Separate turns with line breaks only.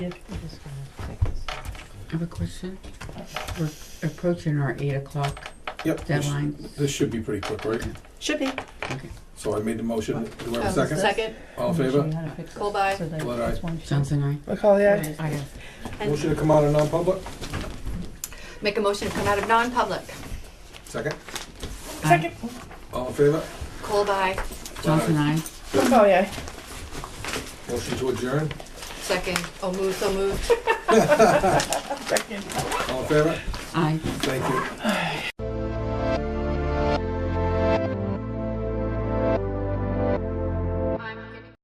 Yep, I'm just gonna take this off.
I have a question. We're approaching our eight o'clock
Yep. this-
deadline.
This should be pretty quick, right?
Should be.
Okay.
So I made the motion. Do I have
Oh,
a second? All
Let me
in
show
favor?
you how to fix
Cold
this.
eye.
So that
Blood eye.
it's one sheet.
Johnson, aye.
Macaulay, aye.
I have
And
Motion to come out of non-public?
make a motion to come out of non-public.
Second?
Second.
All in favor?
Cold eye.
Johnson, aye.
Macaulay, aye.
Motion to adjourn?
Second. Oh, move, so moved.
Second.
All in favor?
Aye.
Thank you.